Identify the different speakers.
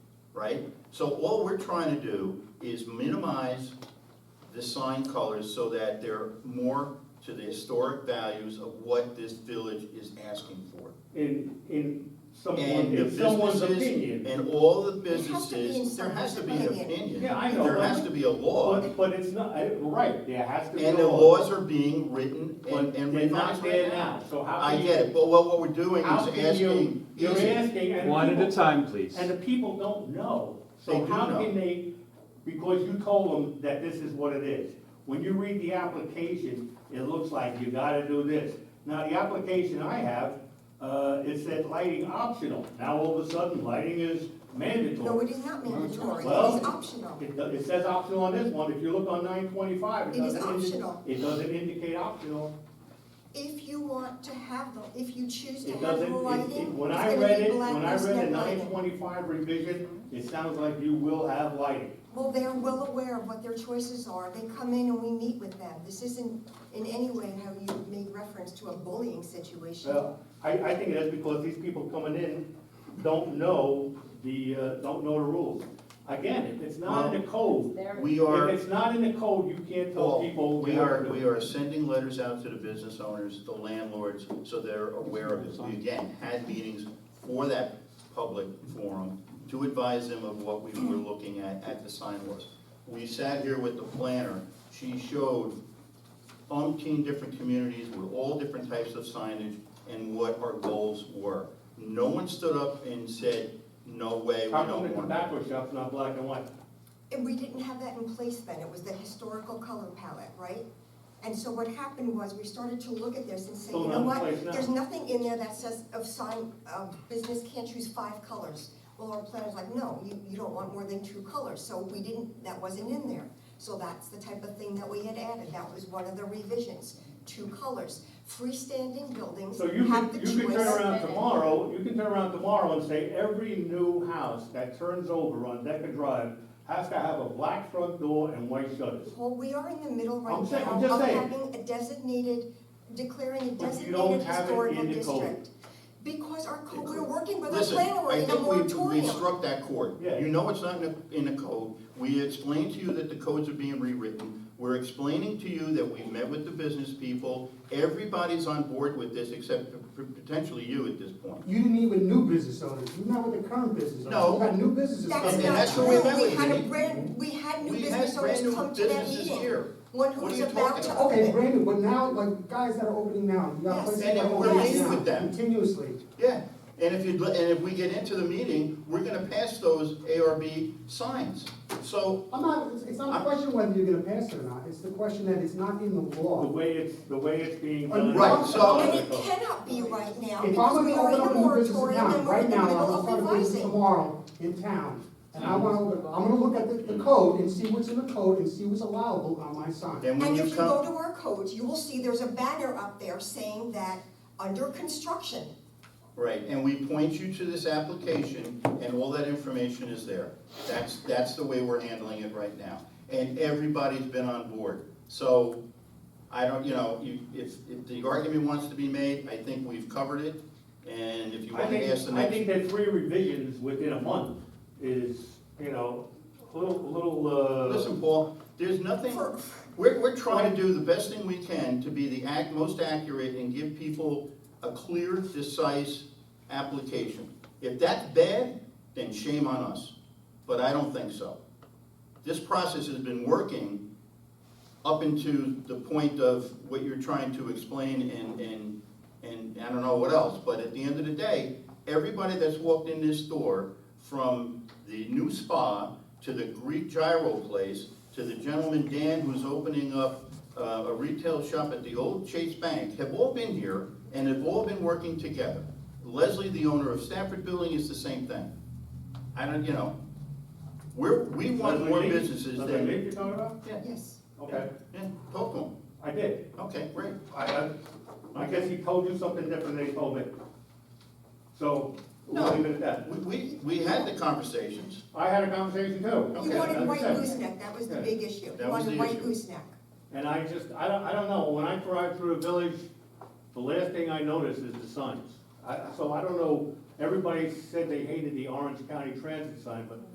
Speaker 1: right? So all we're trying to do is minimize the sign colors so that they're more to the historic values of what this village is asking for.
Speaker 2: in, in someone,
Speaker 1: And the
Speaker 2: in someone's
Speaker 1: businesses-
Speaker 2: opinion.
Speaker 1: And all the
Speaker 3: has to be in
Speaker 1: businesses, there has to be an
Speaker 3: someone's opinion.
Speaker 1: opinion.
Speaker 2: Yeah, I know,
Speaker 1: There
Speaker 2: but-
Speaker 1: has to be a law,
Speaker 2: But, but it's not, I- right, there has to be.
Speaker 1: and the
Speaker 2: a law.
Speaker 1: laws are being written and
Speaker 2: But
Speaker 1: and
Speaker 2: they're not
Speaker 1: revised
Speaker 2: there
Speaker 1: right
Speaker 2: now,
Speaker 1: now.
Speaker 2: so how
Speaker 1: I
Speaker 2: can you?
Speaker 1: get it, but what what we're doing
Speaker 2: How
Speaker 1: is
Speaker 2: can you,
Speaker 1: asking,
Speaker 2: you're
Speaker 1: easy.
Speaker 2: asking, and
Speaker 4: One at a
Speaker 2: people,
Speaker 4: time, please.
Speaker 2: and the people don't know.
Speaker 1: They
Speaker 2: So
Speaker 1: do
Speaker 2: how
Speaker 1: know.
Speaker 2: can they, because you told them that this is what it is. When you read the application, it looks like you gotta do this. Now, the application I have, uh, it said lighting optional. Now, all of a sudden, lighting is mandatory.
Speaker 3: No, it is not mandatory, it is
Speaker 2: Well-
Speaker 3: optional.
Speaker 2: It, it says optional on this one, if you look on nine twenty-five, it
Speaker 3: It is
Speaker 2: doesn't. indi-
Speaker 3: optional.
Speaker 2: It doesn't indicate optional,
Speaker 3: If you want to have them, if you choose to
Speaker 2: it
Speaker 3: have
Speaker 2: doesn't, it-
Speaker 3: lighting,
Speaker 2: it,
Speaker 3: it's
Speaker 2: when I
Speaker 3: gonna
Speaker 2: read
Speaker 3: be
Speaker 2: it,
Speaker 3: black,
Speaker 2: when I
Speaker 3: there's
Speaker 2: read the
Speaker 3: no
Speaker 2: nine
Speaker 3: lighting.
Speaker 2: twenty-five revision, it sounds like you will have lighting.
Speaker 3: Well, they're well aware of what their choices are, they come in and we meet with them. This isn't in any way how you made reference to a bullying situation.
Speaker 2: Well, I, I think that's because these people coming in don't know the, uh, don't know the rules. Again, if it's not in the code,
Speaker 1: we are.
Speaker 2: if it's not in the code, you can't tell people.
Speaker 1: Paul, we are, we are sending letters out to the business owners, the landlords, so they're aware of it. We again had meetings for that public forum to advise them of what we were looking at, at the sign laws. We sat here with the planner, she showed umpteen different communities with all different types of signage and what our goals were. No one stood up and said, no way, we
Speaker 2: How come the
Speaker 1: don't want that.
Speaker 2: tobacco shop's not black and white?
Speaker 3: And we didn't have that in place then, it was the historical color palette, right? And so what happened was, we started to look at this and say,
Speaker 2: Still
Speaker 3: you
Speaker 2: not
Speaker 3: know
Speaker 2: in
Speaker 3: what?
Speaker 2: place now.
Speaker 3: There's nothing in there that says of sign, of business can't choose five colors. Well, our planner's like, no, you, you don't want more than two colors, so we didn't, that wasn't in there. So that's the type of thing that we had added, that was one of the revisions, two colors. Freestanding buildings
Speaker 2: So you
Speaker 3: have
Speaker 2: can,
Speaker 3: the choice.
Speaker 2: you can turn around tomorrow, you can turn around tomorrow and say every new house that turns over on Decker Drive has to have a black front door and white shutters.
Speaker 3: Well, we are in the middle right
Speaker 2: I'm saying-
Speaker 3: now
Speaker 2: I'm just
Speaker 3: of
Speaker 2: saying.
Speaker 3: having a designated, declaring a
Speaker 2: But you don't
Speaker 3: designated
Speaker 2: have it
Speaker 3: historical
Speaker 2: in the code.
Speaker 3: district. Because our code, we're working with our
Speaker 1: Listen,
Speaker 3: planner, we're
Speaker 1: I
Speaker 3: in a
Speaker 1: think we, we
Speaker 3: moratorium.
Speaker 1: struck that chord.
Speaker 2: Yeah.
Speaker 1: You know it's not in the, in the code. We explained to you that the codes are being rewritten. We're explaining to you that we've met with the business people. Everybody's on board with this except p- potentially you at this point.
Speaker 5: You didn't even new business owners, you not with the current business owners.
Speaker 1: No.
Speaker 5: You got new businesses.
Speaker 3: That's
Speaker 1: And
Speaker 5: coming in.
Speaker 3: not
Speaker 1: that's who we met
Speaker 3: true, we
Speaker 1: with,
Speaker 3: had a
Speaker 1: Judy.
Speaker 3: brand, we had new
Speaker 1: We had
Speaker 3: business owners
Speaker 1: brand new
Speaker 3: come to that
Speaker 1: businesses
Speaker 3: meeting.
Speaker 1: here.
Speaker 3: One
Speaker 1: What are
Speaker 3: who's
Speaker 1: you
Speaker 3: about
Speaker 1: talking
Speaker 3: to
Speaker 1: about?
Speaker 5: Okay,
Speaker 3: open.
Speaker 5: brand new, but now, like, guys that are opening now, you
Speaker 3: Yes.
Speaker 5: got places
Speaker 1: And
Speaker 5: that
Speaker 1: then
Speaker 5: are
Speaker 1: we're
Speaker 5: opening
Speaker 3: meeting
Speaker 5: now,
Speaker 1: with them.
Speaker 5: continuously.
Speaker 1: Yeah, and if you, and if we get into the meeting, we're gonna pass those ARB signs. So,
Speaker 5: I'm not, it's- it's not a question whether you're gonna pass it or not, it's the question that it's not in the
Speaker 2: The
Speaker 5: law.
Speaker 2: way it's, the way it's being done.
Speaker 1: Right, so-
Speaker 3: And it cannot be right now,
Speaker 5: If I'm
Speaker 3: because we
Speaker 5: gonna
Speaker 3: are in
Speaker 5: open
Speaker 3: a
Speaker 5: up a new business
Speaker 3: moratorium
Speaker 5: now,
Speaker 3: and we're
Speaker 5: right
Speaker 3: in the
Speaker 5: now, I'm
Speaker 3: middle
Speaker 5: gonna
Speaker 3: of
Speaker 5: start a business
Speaker 3: revising.
Speaker 5: tomorrow in town, and I wanna, open- I'm gonna look at the, the code and see what's in the code and see what's allowable on my sign.
Speaker 1: then when
Speaker 3: And
Speaker 1: you
Speaker 3: if
Speaker 1: come.
Speaker 3: you go to our codes, you will see there's a banner up there saying that, under construction.
Speaker 1: Right, and we point you to this application, and all that information is there. That's, that's the way we're handling it right now. And everybody's been on board. So, I don't, you know, you, if, if the argument wants to be made, I think we've covered it. And if you
Speaker 2: I
Speaker 1: want to ask the
Speaker 2: think, I think
Speaker 1: next,
Speaker 2: that three revisions within a month is, you know, a little, a little, uh.
Speaker 1: listen, Paul, there's nothing,
Speaker 3: For-
Speaker 1: we're, we're trying to do the best thing we can to be the act, most accurate and give people a clear, decisive application. If that's bad, then shame on us, but I don't think so. This process has been working up into the point of what you're trying to explain and, and, and I don't know what else, but at the end of the day, everybody that's walked in this door, from the new spa to the Greek gyro place, to the gentleman Dan who's opening up uh, a retail shop at the old Chase Bank, have all been here and have all been working together. Leslie, the owner of Stafford Building, is the same thing. I don't, you know, we're, we want
Speaker 2: Leslie
Speaker 1: more
Speaker 2: Lee?
Speaker 1: businesses
Speaker 2: Leslie Lee
Speaker 1: than.
Speaker 2: you're talking about?
Speaker 1: Yeah,
Speaker 3: Yes.
Speaker 2: Okay,
Speaker 1: yeah, talk to 'em.
Speaker 2: I did.
Speaker 1: Okay, great.
Speaker 2: I, I, I guess he told you something different than he told me. So, we'll
Speaker 1: No.
Speaker 2: leave it at that.
Speaker 1: We, we, we had the conversations.
Speaker 2: I had a conversation too.
Speaker 3: You
Speaker 1: Okay,
Speaker 3: wanted
Speaker 2: as I
Speaker 3: white
Speaker 2: said.
Speaker 3: gooseneck, that was the
Speaker 2: Yeah.
Speaker 3: big issue. You
Speaker 1: That was
Speaker 3: wanted
Speaker 1: the
Speaker 3: white
Speaker 1: issue.
Speaker 3: gooseneck.
Speaker 2: And I just, I don't, I don't know, when I drive through a village, the last thing I notice is the signs. I, so I don't know, everybody said they hated the Orange County Transit sign, but